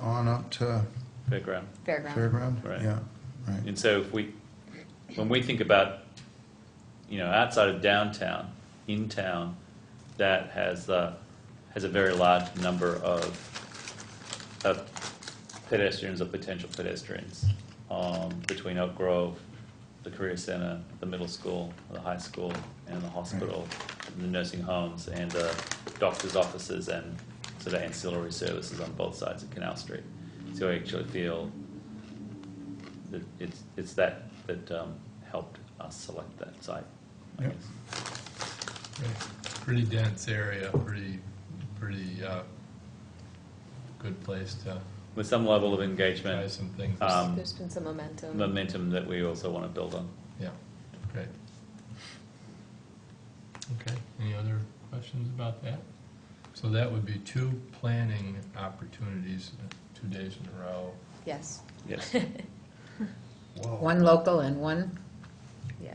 on up to Fairground. fairground. Fairground? Right. Yeah, right. And so if we, when we think about, you know, outside of downtown, in town, that has, uh, has a very large number of, of pedestrians or potential pedestrians, um, between Oak Grove, the career center, the middle school, the high school, and the hospital, and the nursing homes, and the doctor's offices, and sort of ancillary services on both sides of Canal Street. So I actually feel that it's, it's that, that um, helped us select that site, I Yep. guess. Pretty dense area, pretty, pretty, uh, good place to With some level of try engagement, some things. Um, There's been some momentum. momentum that we also want to build on. Yeah, great. Okay, any other questions about that? So that would be two planning opportunities, uh, two days in a row. Yes, Yes. Whoa. One local and one, yeah.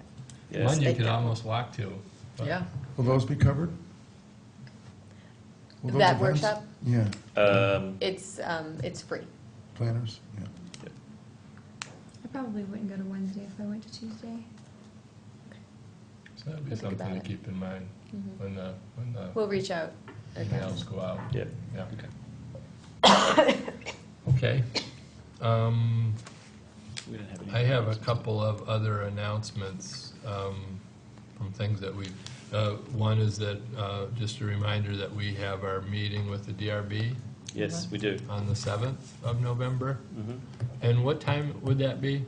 Yes. One you State could capital. almost walk to. but- yeah. Will those be covered? Will those That events- workshop? Yeah, Um, It's, um, it's free. planners, yeah. I probably wouldn't go to Wednesday if I went to Tuesday. So that'd be Think about something to it. keep in mind Mhm. when the, when the We'll reach out again. emails go out. Yeah. Yeah. Okay. Okay. Um, We didn't have any. I have a couple of other announcements um, from things that we've, uh, one is that, uh, just a reminder that we have our meeting with the DRB Yes, we do. on the 7th of November. Mhm. And what time would that be?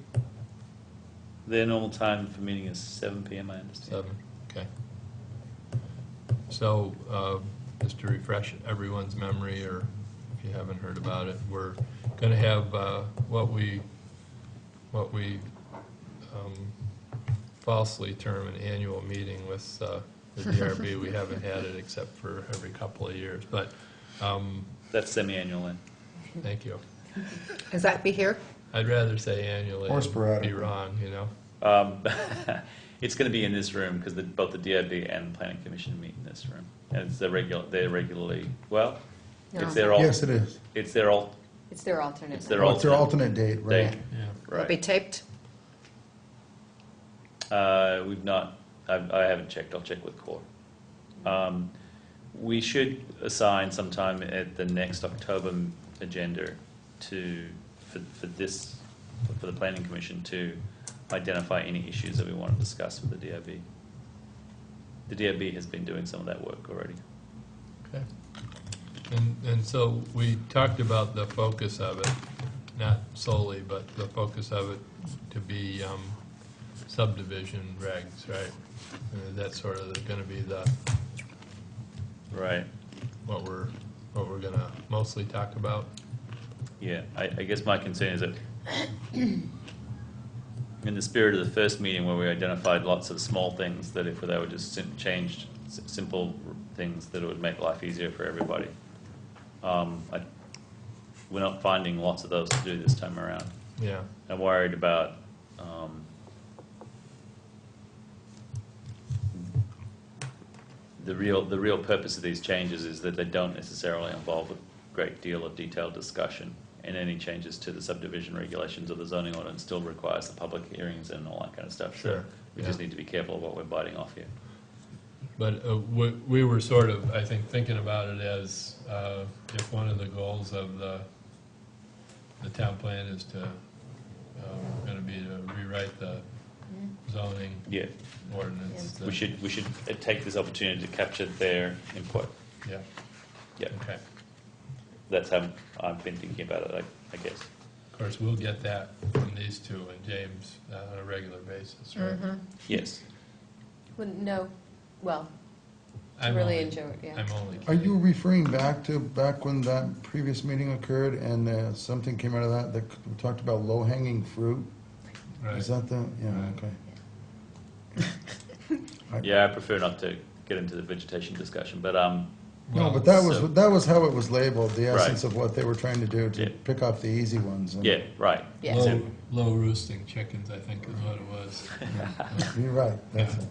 Their normal time for meeting is seven PM, I understand. 7, Um, okay. So, uh, just to refresh everyone's memory, or if you haven't heard about it, we're going to have uh, what we, what we um, falsely term an annual meeting with uh, the DRB. We haven't had it except for every couple of years, but, um, That's semi-annual then. thank you. Is that be here? I'd rather say annually. Or and sporadically. Be wrong, you know? Um, It's going to be in this room because both the DRB and the Planning Commission meet in this room. And it's the regular, they're regularly, well, it's No. their, al- Yes, it is. it's their, al- It's their alternate. It's night. their Well, It's their alternate alternate date, right? date. Yeah. Will be right. taped? Uh, We've not, I've- I haven't checked, I'll check with Core. Um, We should assign sometime at the next October m- agenda to, for for this, for the Planning Commission to identify any issues that we want to discuss with the DRB. The DRB has been doing some of that work already. Okay. And, and so we talked about the focus of it, not solely, but the focus of it to be um, subdivision regs, right? Uh, That's sort of going to be the, Right, what we're, what we're going to mostly talk about. yeah, I I guess my concern is that in the spirit of the first meeting where we identified lots of small things that if they were just sim- changed, s- simple r- things that it would make life easier for everybody. Um, I, we're not finding lots of those to do this time around. Yeah, I'm worried about, um, the real, the real purpose of these changes is that they don't necessarily involve a great deal of detailed discussion. And any changes to the subdivision regulations or the zoning ordinance still requires the public hearings and all that kind of stuff. So Sure, We just yeah. need to be careful of what we're biting off here. but uh, we, we were sort of, I think, thinking about it as uh, if one of the goals of the, the town plan is to, going to be to rewrite the Mm-hmm. zoning Yeah, ordinance. we should, we should uh, take this opportunity to capture their input. Yeah, Yeah, okay. that's how I've been thinking about it, I, I guess. Of course, we'll get that from these two and James uh, on a regular basis, Mm-hmm. right? Yes. Well, no, well, to I'm really only- enjoy, it, yeah. I'm only Are you kidding. referring back to, back when that previous meeting occurred and uh, something came out of that that c- talked about low-hanging fruit? Right. Is that the, yeah, Right. okay. Yeah, I prefer not to get into the vegetation discussion, but, um, No, Well, but that was, so- that was how it was labeled, the Right. essence of what they were trying to do, to Yeah. pick off the easy ones. and- yeah, right. Yeah. Low, low roosting chickens, I think is what it was. You're right, that's it.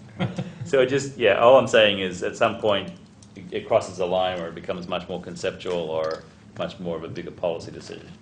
So it just, yeah, all I'm saying is at some point, it- it crosses a line or it becomes much more conceptual or much more of a bigger policy decision.